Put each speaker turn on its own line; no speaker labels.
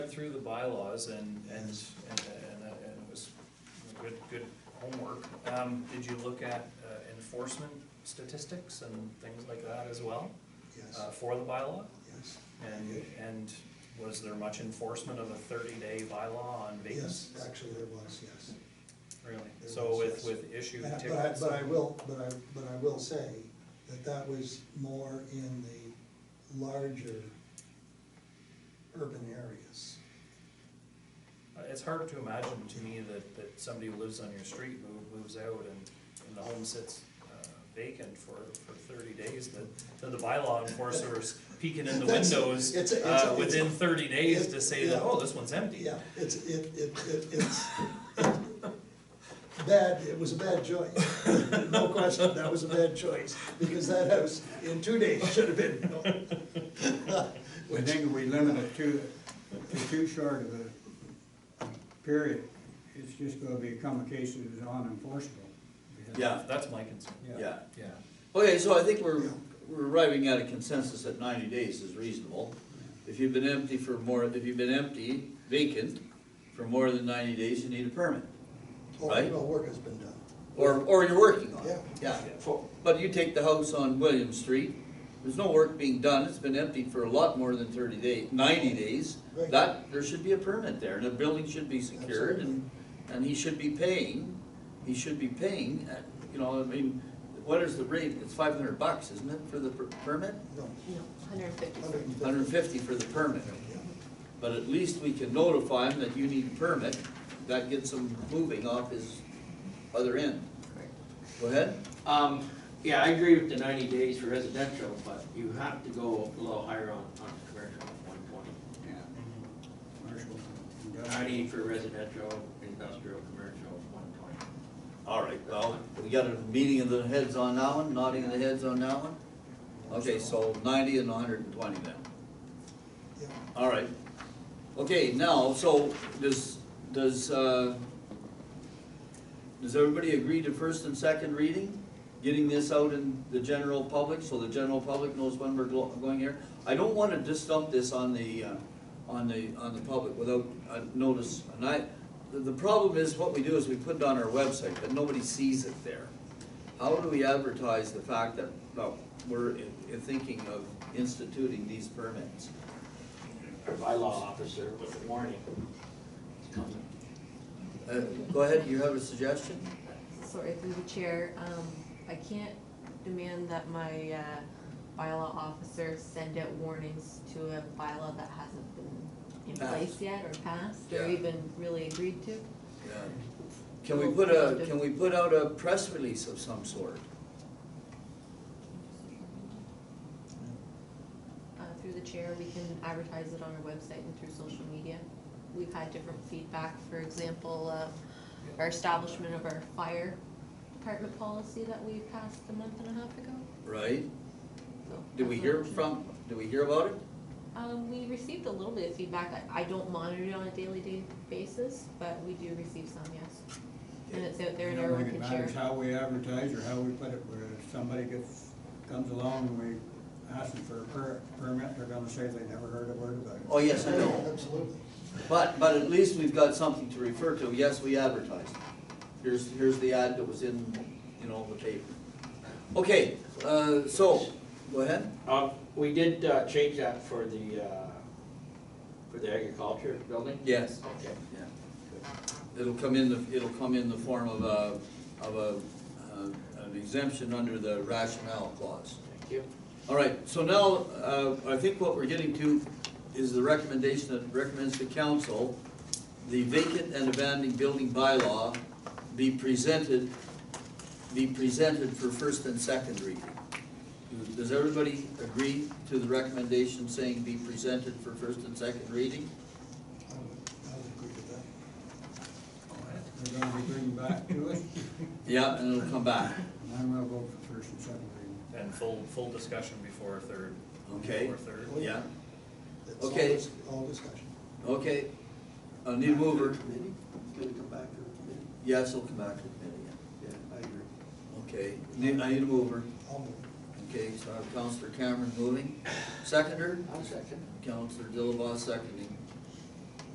through the bylaws and, and, and, and uh, and it was good, good homework. Um, did you look at uh, enforcement statistics and things like that as well,
Yes,
uh, for the bylaw?
yes.
And, and was there much enforcement of a thirty-day bylaw on
Yes,
vacancies?
actually there was, yes.
Really?
There
So
was,
with,
yes.
with issue
And I- But I,
tickets?
but I will, but I, but I will say that that was more in the larger urban areas.
Uh, It's hard to imagine to me that, that somebody who lives on your street, move- moves out and, and the home sits uh, vacant for, for thirty days, that, that the bylaw enforcer is peeking in the
That's-
windows
it's a- it's a-
uh,
it's a-
within thirty days to say that,
Yeah.
oh, this one's empty.
Yeah, it's, it, it, it, it's bad, it was a bad choice. No question, that was a bad choice, because that house in two days should have been built.
I think we limit it to, to too short of a period, it's just gonna become a case that is unenforceable.
Yeah.
That's my concern.
Yeah.
Yeah.
Okay, so I think we're, we're arriving at a consensus that ninety days is reasonable. If you've been empty for more, if you've been empty, vacant, for more than ninety days, you need a permit.
Oh,
Right.
Well, work has been done.
Or, or you're working on it.
Yeah.
For- But you take the house on William Street, there's no work being done, it's been empty for a lot more than thirty days, ninety days.
Right.
That, there should be a permit there, and the building should be secured, and, and he should be paying, he should be paying, uh, you know, I mean, what is the rate? It's five hundred bucks, isn't it, for the per- permit?
No,
No, hundred and fifty.
hundred and fifty.
Hundred and fifty for the permit,
Yeah.
but at least we can notify him that you need a permit, that gets him moving off his other end. Go ahead.
Um, yeah, I agree with the ninety days for residential, but you have to go a little higher on, on commercial, one twenty.
Yeah. Commercial, industrial.
Ninety for residential, industrial, commercial, one twenty.
All right, well, we got a meeting of the heads on that one, nodding of the heads on that one? Okay, so ninety and hundred and twenty then,
Yeah.
all right. Okay, now, so does, does, uh, does everybody agree to first and second reading? Getting this out in the general public, so the general public knows when we're glo- going here? I don't wanna just dump this on the, uh, on the, on the public without uh, notice, and I, the, the problem is, what we do is we put it on our website, but nobody sees it there. How do we advertise the fact that, well, we're in, in thinking of instituting these permits?
Our bylaw officer with a warning.
Uh, Go ahead, you have a suggestion?
Sorry, through the chair, um, I can't demand that my, uh, bylaw officer send out warnings to a bylaw that hasn't been in
Passed.
place yet or passed or
Yeah.
even really agreed to.
Can we put a, can we put out a press release of some sort?
Uh, through the chair, we can advertise it on our website and through social media. We've had different feedback, for example, uh, our establishment of our fire department policy that we passed a month and a half ago,
Right?
so.
Did we
that's an
hear
option.
from, did we hear about it?
Um, we received a little bit of feedback. I, I don't monitor it on a daily day basis, but we do receive some, yes. And it's out
I
there and
don't
everyone
think it
can share.
matters how we advertise or how we put it, where if somebody gets, comes along and we ask them for a per- permit, they're gonna say they never heard a word about it.
Oh, yes, I know.
Absolutely.
But, but at least we've got something to refer to, yes, we advertised. Here's, here's the ad that was in, you know, the paper. Okay, uh, so, go ahead.
Uh, we did, uh, change that for the, uh, for the agriculture building?
Yes.
Okay.
Yeah. It'll come in, the it'll come in the form of a, of a, uh, an exemption under the rationale clause.
Thank you.
All right, so now, uh, I think what we're getting to is the recommendation that recommends the council, the vacant and abandoned building bylaw be presented, be presented for first and second reading. Does everybody agree to the recommendation saying be presented for first and second reading?
I would, I would agree with that.
They're gonna be bringing back to it,
Yeah, and it'll come back.
and I'm gonna vote for first and second reading.
And full, full discussion before third.
Okay.
Before third.
Yeah,
It's all
Okay.
dis- All discussion.
okay. I need a mover.
Committee, it's gonna come back to the committee,
Yes, it'll come back to committee,
yeah, I agree.
okay. Need, I need a mover.
I'll move.
Okay, so I have Counselor Cameron moving. Seconder,
I'll second.
Counselor Dillabaugh seconding.